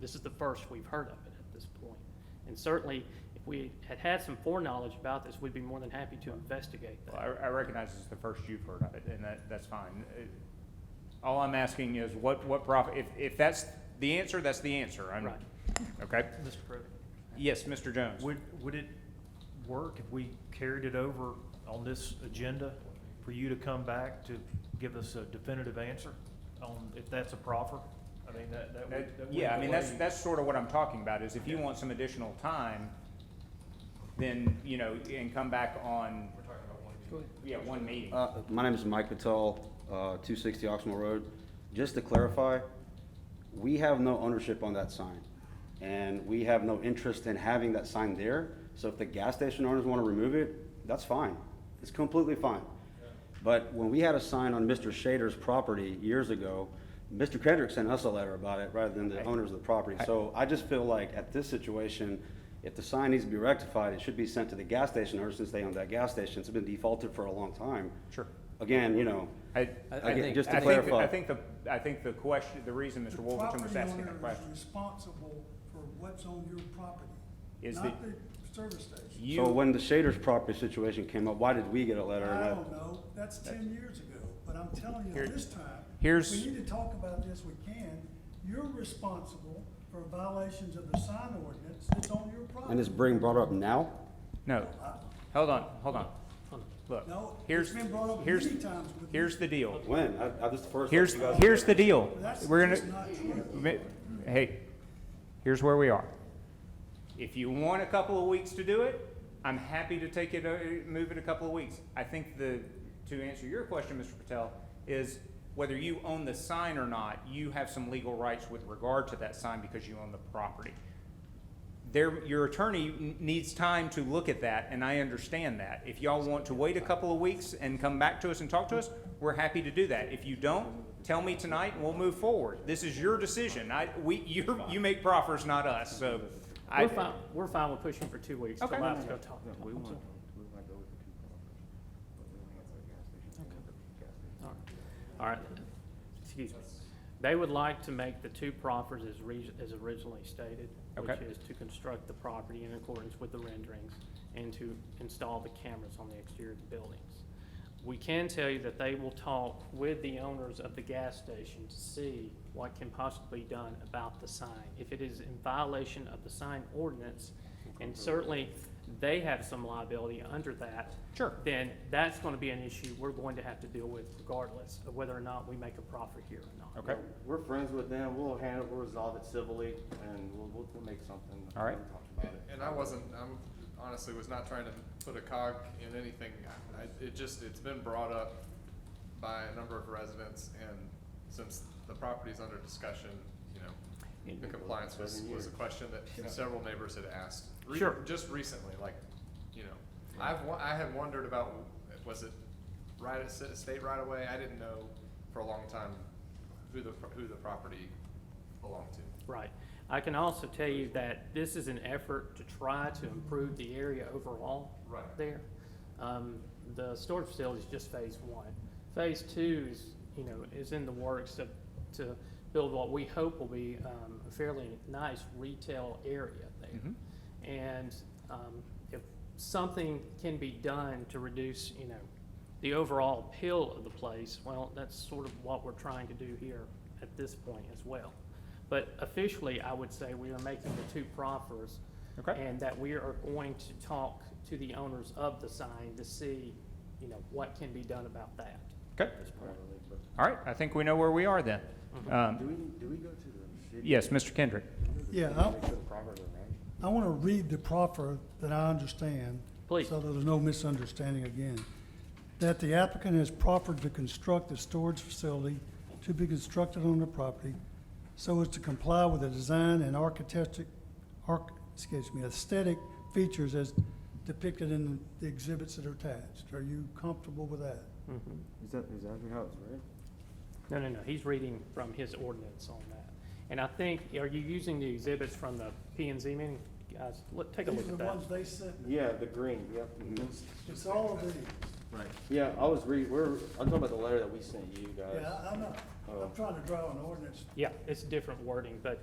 This is the first we've heard of it at this point. And certainly, if we had had some foreknowledge about this, we'd be more than happy to investigate Well, that. I, I recognize it's the first you've heard of it, and that, that's fine. Uh, All I'm asking is what, what profit, if, if that's the answer, that's the answer. I'm- Right. Okay? Mr. Pruitt? Yes, Mr. Jones? Would, would it work if we carried it over on this agenda for you to come back to give us a definitive answer on if that's a proffer? I mean, that, that That- would. that would Uh, Yeah, I mean, that's, delay- that's sort of what I'm talking about, is if you want some additional time, then, you know, and come back on. We're talking about one meeting. Yeah, one meeting. Uh, My name is Mike Patel, uh, 260 Oxmoor Road. Just to clarify, we have no ownership on that sign, and we have no interest in having that sign there. So if the gas station owners want to remove it, that's fine. It's completely fine. But when we had a sign on Mr. Shader's property years ago, Mr. Kendrick sent us a letter about it rather than the owners of the property. So I just feel like at this situation, if the sign needs to be rectified, it should be sent to the gas station owners since they own that gas station. It's been defaulted for a long time. Sure. Again, you know, I, I think- just to I think- clarify. I think the, I think the question, the reason Mr. Wolverton was asking that The property owner question. is responsible for what's on your property, Is not the- the service station. You- so when the Shader's property situation came up, why did we get a letter? and I not- Oh. don't know, that's ten years ago, but I'm telling you, Here- this time, here's- we need to talk about this, we can. You're responsible for violations of the sign ordinance that's on your property. And it's being brought up now? No, hold on, hold on. Look, No, it's here's, been brought up here's, many times with me. here's the deal. When? I, I, this is the first. Here's, you guys- here's the deal. That's We're gonna. just not true. Mi- Hey, here's where we are. If you want a couple of weeks to do it, I'm happy to take it, uh, move it a couple of weeks. I think the, to answer your question, Mr. Patel, is whether you own the sign or not, you have some legal rights with regard to that sign because you own the property. There, your attorney n- needs time to look at that, and I understand that. If y'all want to wait a couple of weeks and come back to us and talk to us, we're happy to do that. If you don't, tell me tonight and we'll move forward. This is your decision. I, we, you, you make proffers, not us, so. I- We're fine, we're fine with pushing for two weeks to Okay. allow us to go talk. I'm sorry. All right. All right, excuse me. They would like to make the two proffers as re- as originally stated, which Okay. is to construct the property in accordance with the renderings and to install the cameras on the exterior of the buildings. We can tell you that they will talk with the owners of the gas station to see what can possibly be done about the sign. If it is in violation of the sign ordinance, and certainly they have some liability under that. Sure. Then that's gonna be an issue we're going to have to deal with regardless of whether or not we make a profit here or not. Okay, We're friends with them, we'll handle, we'll resolve it civilly, and we'll, we'll, we'll make something. All right. We'll talk about it. And I wasn't, I'm honestly was not trying to put a cog in anything. I, it just, it's been brought up by a number of residents and since the property's under discussion, you know, the compliance was, was a question that several neighbors had asked. re- Sure. Just recently, like, you know, I've, wo- I had wondered about, was it right, at- state right away? I didn't know for a long time who the, who the property belonged to. Right. I can also tell you that this is an effort to try to improve the area overall. Right. There. Um, the storage facility is just phase one. Phase two is, you know, is in the works to, to build what we hope will be, um, a fairly nice retail area Mm-hmm. there. And, um, if something can be done to reduce, you know, the overall appeal of the place, well, that's sort of what we're trying to do here at this point as well. But officially, I would say we are making the two proffers. Okay. And that we are going to talk to the owners of the sign to see, you know, what can be done about that. okay. All right, I think we know where we are then. Do Um, we, do we go to the city? yes, Mr. Kendrick. Yeah, I- I want to read the proffer that I understand. Please. So that there's no misunderstanding again. That the applicant has proffered to construct a storage facility to be constructed on the property so as to comply with the design and architectic, arch, excuse me, aesthetic features as depicted in the exhibits that are attached. Are you comfortable with that? Is that, is that how it's read? No, no, no, he's reading from his ordinance on that. And I think, are you using the exhibits from the P and Z meeting? Guys, look, take a look These are at the that. ones they sent. me. Yeah, the green, yep. It's all of these. Yeah, I was reading, we're, I'm talking Uh, about the letter that we sent you guys. Yeah, I- I'm not, Oh. I'm trying to draw an ordinance Yeah, it's different wording, but